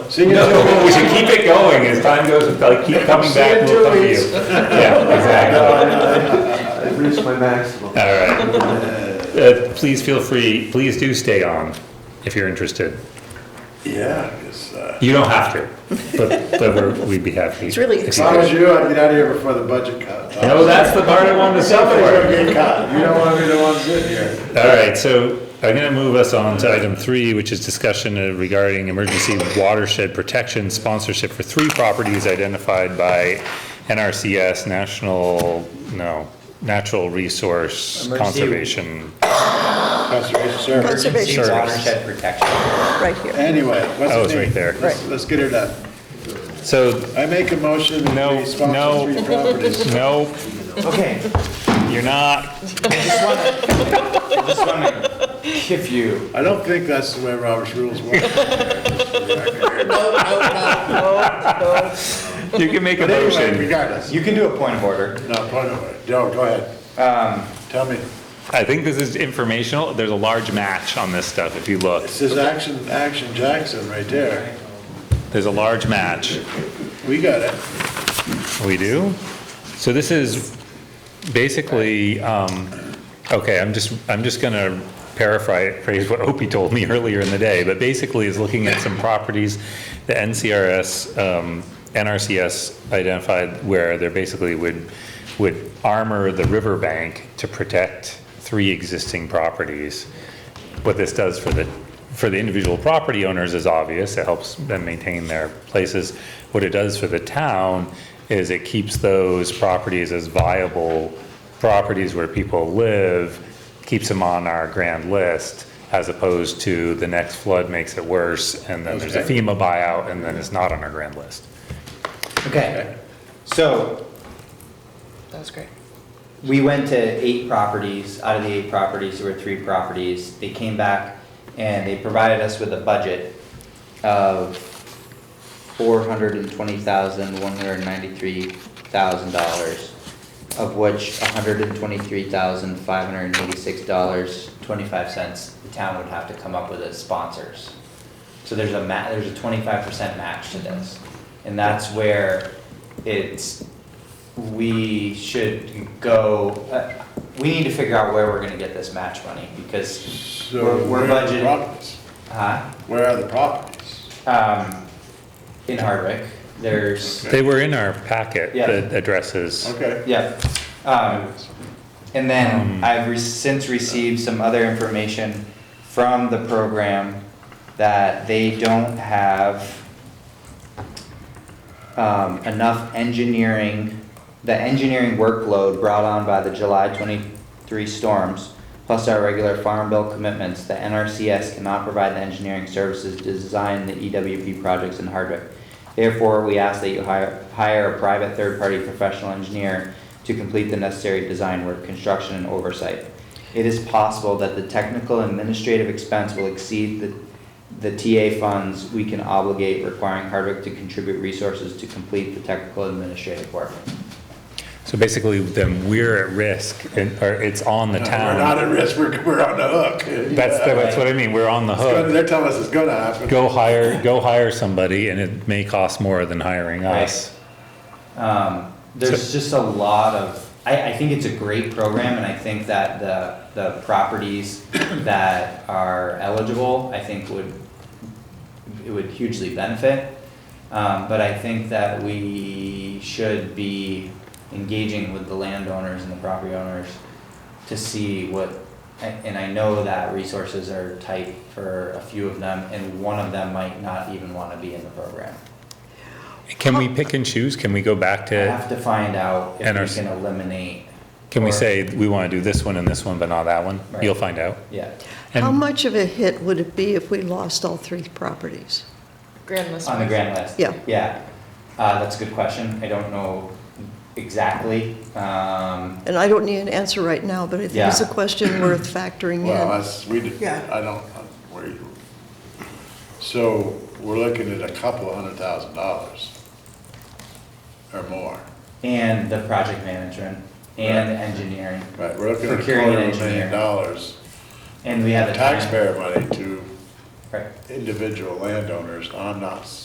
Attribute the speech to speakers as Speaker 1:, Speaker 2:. Speaker 1: See you in two
Speaker 2: No, we should keep it going as time goes, if I keep coming back, we'll come to you. Yeah, exactly.
Speaker 3: I've reached my maximum.
Speaker 2: All right. Uh, Please feel free, please do stay on if you're interested.
Speaker 1: Yeah, because, uh,
Speaker 2: You don't have to, but, but we're- we'd be happy.
Speaker 4: It's really
Speaker 2: if
Speaker 1: if
Speaker 2: you
Speaker 1: I was
Speaker 2: could.
Speaker 1: you, I'd get out of here before the budget cut.
Speaker 2: No, that's the part I wanted to say
Speaker 1: Somebody's
Speaker 2: for.
Speaker 1: gonna get cut. You don't wanna be the one sitting here.
Speaker 2: All right, so I'm gonna move us on to item three, which is discussion uh, regarding emergency watershed protection sponsorship for three properties identified by NRCS, National, no, Natural Resource
Speaker 5: Emergency-
Speaker 2: Conservation.
Speaker 1: Conservation Service.
Speaker 4: Conservation
Speaker 5: Emergency watershed protection.
Speaker 4: right here.
Speaker 1: Anyway, what's
Speaker 2: Oh,
Speaker 1: his
Speaker 2: it's
Speaker 1: name?
Speaker 2: right there.
Speaker 1: Let's, let's get her done.
Speaker 2: So,
Speaker 1: I make a motion that
Speaker 2: No,
Speaker 1: we sponsor
Speaker 2: no.
Speaker 1: three properties.
Speaker 2: no,
Speaker 5: Okay,
Speaker 2: you're not,
Speaker 5: I just want to give you,
Speaker 1: I don't think that's the way Robert's rules work.
Speaker 2: you can make a
Speaker 1: But anyway,
Speaker 2: motion.
Speaker 1: regardless,
Speaker 5: you can do a point of order.
Speaker 1: no, by the way, no, go ahead,
Speaker 5: Um,
Speaker 1: tell me.
Speaker 2: I think this is informational, there's a large match on this stuff, if you look.
Speaker 1: This is Action, Action Jackson right there.
Speaker 2: There's a large match.
Speaker 1: We got it.
Speaker 2: We do? So this is basically, um, okay, I'm just, I'm just gonna paraphrase what Opie told me earlier in the day, but basically is looking at some properties the NCRS, um, NRCS identified where they're basically would, would armor the riverbank to protect three existing properties what this does for the, for the individual property owners is obvious, it helps them maintain their places. What it does for the town is it keeps those properties as viable properties where people live, keeps them on our grand list, as opposed to the next flood makes it worse, and then there's a
Speaker 1: Okay.
Speaker 2: FEMA buyout, and then it's not on our grand list.
Speaker 5: okay, so
Speaker 4: That was great.
Speaker 5: we went to eight properties, out of the eight properties, there were three properties. They came back and they provided us with a budget of four hundred and twenty thousand, one hundred and ninety-three thousand dollars, of which hundred and twenty-three thousand, five hundred and eighty-six dollars, twenty-five cents, the town would have to come up with as sponsors. So there's a ma, there's a twenty-five percent match to this, and that's where it's, we should go, uh, we need to figure out where we're gonna get this match money, because,
Speaker 1: So
Speaker 5: We're- we're
Speaker 1: where are the
Speaker 5: budgeting.
Speaker 1: properties?
Speaker 5: huh?
Speaker 1: Where are the properties?
Speaker 5: Um, in Hardwick, there's,
Speaker 2: They were in our packet
Speaker 5: Yeah.
Speaker 2: that addresses,
Speaker 1: Okay.
Speaker 5: yeah, um, And then I've re- since received some other information from the program that they don't have um, enough engineering, the engineering workload brought on by the July twenty-three storms, plus our regular farm bill commitments, the NRCS cannot provide the engineering services to design the EWP projects in Hardwick. Therefore, we ask that you hire, hire a private third-party professional engineer to complete the necessary design work, construction, and oversight. It is possible that the technical administrative expense will exceed the, the TA funds we can obligate requiring Hardwick to contribute resources to complete the technical administrative work.
Speaker 2: so basically then we're at risk, and, or it's on the
Speaker 1: No, We're not
Speaker 2: town.
Speaker 1: at risk, we're, we're on the hook.
Speaker 2: That's,
Speaker 1: Yeah.
Speaker 2: that's what I mean, we're on the
Speaker 1: It's gonna-
Speaker 2: hook.
Speaker 1: They're telling us it's gonna happen.
Speaker 2: go hire, go hire somebody and it may cost more than hiring us.
Speaker 5: Um, there's just a lot of, I, I think it's a great program and I think that the, the properties that are eligible, I think would, it would hugely benefit. Um, but I think that we should be engaging with the landowners and the property owners to see what, and and I know that resources are tight for a few of them and one of them might not even wanna be in the program.
Speaker 2: Can we pick and choose? Can we go back
Speaker 5: I
Speaker 2: to,
Speaker 5: have to find out if
Speaker 2: And our
Speaker 5: we
Speaker 2: s-
Speaker 5: can eliminate.
Speaker 2: can we
Speaker 5: or-
Speaker 2: say, we want to do this one and this one, but not that one?
Speaker 5: Right.
Speaker 2: You'll find out.
Speaker 5: Yeah,
Speaker 4: How
Speaker 2: And
Speaker 4: much of a hit would it be if we lost all three properties?
Speaker 6: Grand list.
Speaker 5: on the grant list.
Speaker 4: Yeah.
Speaker 5: Yeah, uh, that's a good question. I don't know exactly. Um,
Speaker 4: And I don't need an answer right now, but I think it's a
Speaker 5: Yeah.
Speaker 4: question worth factoring
Speaker 1: Well,
Speaker 4: in.
Speaker 1: that's, we, did-
Speaker 4: Yeah.
Speaker 1: I don't, we, so we're looking at a couple hundred thousand dollars or more.
Speaker 5: and the project management and the engineering.
Speaker 1: Right, we're looking at a
Speaker 5: Procuring an
Speaker 1: quarter of a
Speaker 5: engineer.
Speaker 1: million dollars,
Speaker 5: And we have a time.
Speaker 1: taxpayer money to
Speaker 5: Right.
Speaker 1: individual landowners on us.